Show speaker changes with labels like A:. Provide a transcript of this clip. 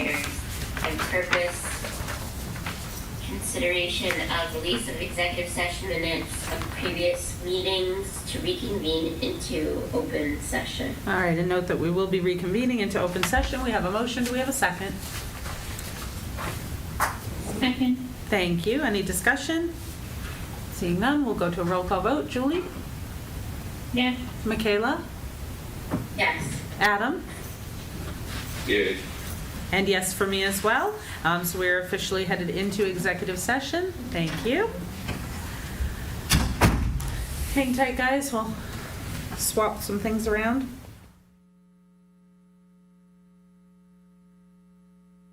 A: and purpose, consideration of release of executive session minutes of previous meetings to reconvene into open session.
B: All right, and note that we will be reconvening into open session. We have a motion, do we have a second?
A: Second.
B: Thank you, any discussion? Seeing none, we'll go to a roll call vote. Julie?
A: Yeah.
B: Michaela?
A: Yes.
B: Adam?
C: Yeah.
B: And yes for me as well. Um, So we're officially headed into executive session. Thank you. Hang tight, guys, we'll swap some things around.